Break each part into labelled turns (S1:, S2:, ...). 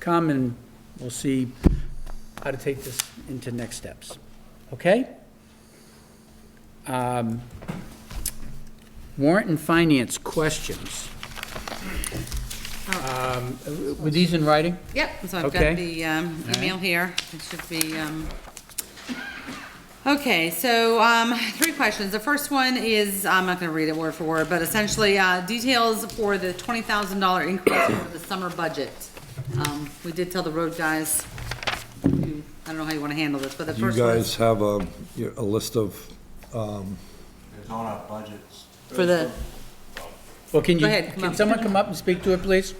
S1: come and we'll see how to take this into next steps. Okay? Um, Warrant and finance questions. Um, Were these in writing?
S2: Yep, so I've
S1: Okay.
S2: got the um,
S1: All right.
S2: email here. It should be, um, okay, so um, three questions. The first one is, I'm not going to read it word for word, but essentially uh, details for the $20,000 increase for the summer budget. Um, We did tell the road guys, you- I don't know how you want to handle this, but the
S3: Do you
S2: first one is
S3: guys have a, your- a list of, um,
S4: It's on our budgets.
S2: for the,
S1: Well, can you,
S2: Go ahead, come
S1: can
S2: up.
S1: someone come up and speak to it, please?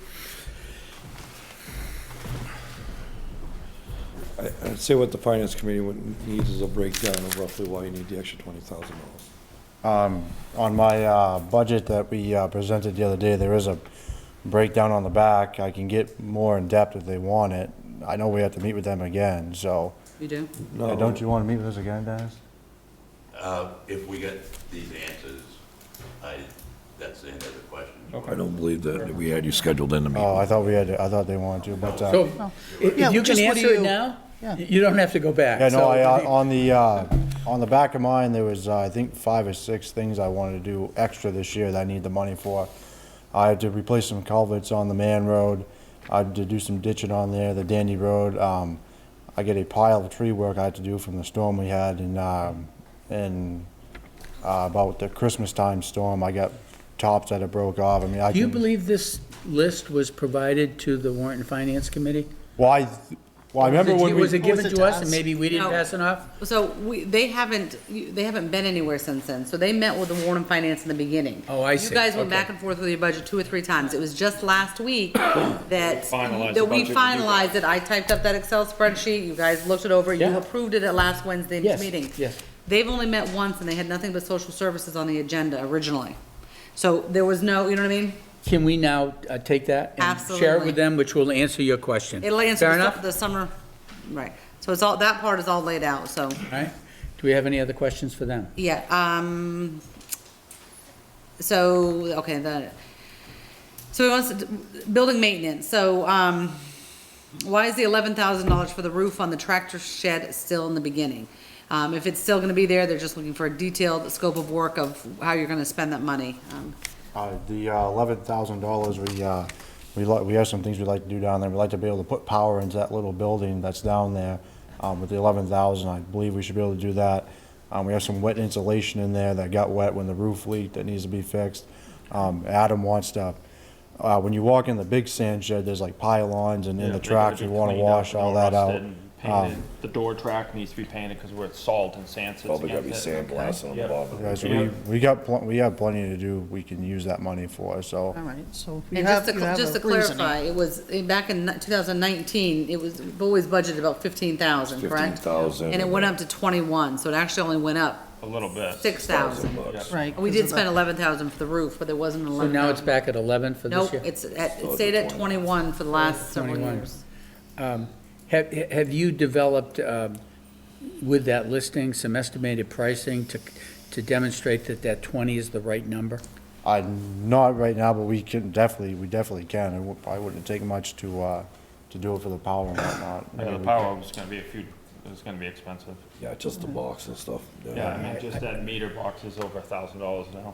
S3: I'd uh, say what the finance committee would- needs is a breakdown of roughly why you need the extra twenty thousand dollars.
S4: On my uh, budget that we uh, presented the other day, there is a breakdown on the back. I can get more in-depth if they want it. I know we have to meet with them again, so.
S2: you do?
S3: No.
S4: Don't you want to meet with us again, Dennis?
S5: Uh, If we get these answers, I, that's the end of the question.
S3: I don't believe that we had you scheduled in to meet.
S4: Oh, I thought we had, I thought they wanted to, but, uh,
S1: So, if
S6: Oh. Yeah,
S1: you can
S6: just what do
S1: answer it
S6: you-
S1: now,
S6: Yeah.
S1: you don't have to go back.
S4: yeah, no,
S1: So-
S4: I, uh, on the, uh, on the back of mine, there was, uh, I think, five or six things I wanted to do extra this year that I need the money for. I had to replace some culverts on the Man Road. I had to do some ditching on there, the Dandy Road. Um, I get a pile of tree work I had to do from the storm we had in, um, in, uh, about the Christmas time storm. I got tops that had broke off. I mean, I
S1: Do you
S4: can-
S1: believe this list was provided to the warrant and finance committee?
S4: Well, I, well, I remember
S1: Was it-
S4: when we.
S1: Was it given
S6: Was
S1: to
S6: it to
S1: us and
S6: us?
S1: maybe we didn't
S2: No.
S1: pass it off?
S2: So we, they haven't, you- they haven't been anywhere since then, so they met with the Warren Finance in the beginning.
S1: Oh, I see.
S2: You guys went
S1: Okay.
S2: back and forth with your budget two or three times, it was just last week that.
S7: Finalized the
S2: That we
S7: budget and do that.
S2: finalized it, I typed up that Excel spreadsheet, you guys looked it over, you
S1: Yeah.
S2: approved it at last Wednesday's
S1: Yes,
S2: meeting.
S1: yes.
S2: They've only met once and they had nothing but social services on the agenda originally. So there was no, you know what I mean?
S1: Can we now uh, take that? And share it
S2: Absolutely.
S1: with them, which will answer your question.
S2: It'll answer
S1: Fair
S2: the stuff
S1: enough?
S2: the summer, right, so it's all, that part is all laid out, so.
S1: All right. Do we have any other questions for them?
S2: Yeah, um, so, okay, the, so he wants, to- building maintenance, so, um, why is the eleven thousand dollars for the roof on the tractor shed still in the beginning? Um, if it's still gonna be there, they're just looking for a detailed scope of work of how you're gonna spend that money. Um,
S4: Uh, The eleven thousand dollars, we, uh, we like, we have some things we'd like to do down there. We'd like to be able to put power into that little building that's down there. Um, With the eleven thousand, I believe we should be able to do that. Um, We have some wet insulation in there that got wet when the roof leaked that needs to be fixed. Um, Adam wants to, uh, when you walk in the big sand shed, there's like pylons and in the tracks, we want to wash all that out. Um,
S7: The door track needs to be painted because we're at salt and sand. so it's
S8: Probably gotta be
S7: against it.
S8: sandblasted on the
S7: Yep.
S8: bottom.
S4: Guys, we, we got, pl- we have plenty to do, we can use that money for, so.
S6: All right, so you
S2: And just
S6: have,
S2: to,
S6: you
S2: cl-
S6: have
S2: just
S6: a
S2: to
S6: reasoning.
S2: clarify, it was, eh, back in two thousand nineteen, it was, we've always budgeted about fifteen thousand, correct?
S8: 15,000.
S2: And it went up to twenty-one, so it actually only went up
S7: A little bit.
S2: six thousand.
S6: Right.
S2: We
S6: 'cause
S2: did
S6: of the-
S2: spend eleven thousand for the roof, but there wasn't an
S1: So
S2: eleven.
S1: now it's back at 11 for this
S2: Nope,
S1: year?
S2: it's, at- it stayed at twenty-one for the last several
S1: 21.
S2: years.
S1: Um, Have, have you developed, um, with that listing, some estimated pricing to, to demonstrate that that 20 is the right number?
S4: I, not right now, but we can definitely, we definitely can. It would- probably wouldn't take much to, uh, to do it for the power and whatnot.
S7: Yeah, the power was gonna be a few, it's gonna be expensive.
S3: Yeah, just the box and stuff.
S7: Yeah, I mean, just that meter box is over a thousand dollars now.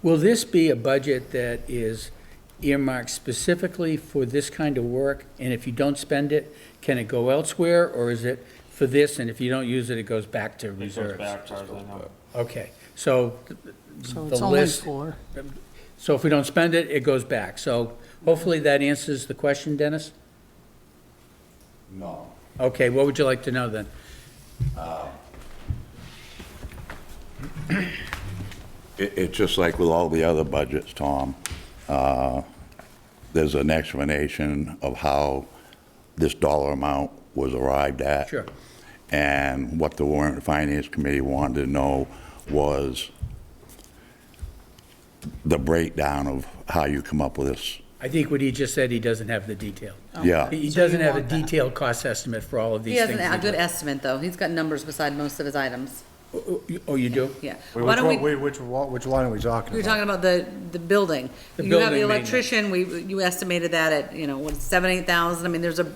S1: Will this be a budget that is earmarked specifically for this kind of work? And if you don't spend it, can it go elsewhere, or is it for this, and if you don't use it, it goes back to
S7: It
S1: reserves?
S7: goes back, as far as I know.
S1: Okay, so th-
S6: So it's
S1: the
S6: only
S1: list,
S6: four.
S1: so if we don't spend it, it goes back. So hopefully that answers the question, Dennis?
S5: No.
S1: Okay, what would you like to know then?
S5: It, it's just like with all the other budgets, Tom. Uh, There's an explanation of how this dollar amount was arrived at.
S1: Sure.
S5: And what the Warrant and Finance Committee wanted to know was the breakdown of how you come up with this.
S1: I think what he just said, he doesn't have the detail.
S5: Yeah.
S1: He he
S6: So you
S1: doesn't have a
S6: want that.
S1: detailed cost estimate for all of these
S2: He
S1: things.
S2: has an- a
S1: that
S2: good estimate, though. He's got numbers beside most of his items,
S1: go- Oh, you- Oh, you do?
S2: yeah.
S4: Wait,
S2: Why
S4: Which,
S2: don't
S4: one-
S2: we,
S4: wait, which, wa- which line are we talking
S2: we were
S4: about?
S2: talking about the, the building.
S1: The
S2: You have the
S1: building maintenance.
S2: electrician, we, you estimated that at, you know, what, seven, eight thousand? I mean, there's a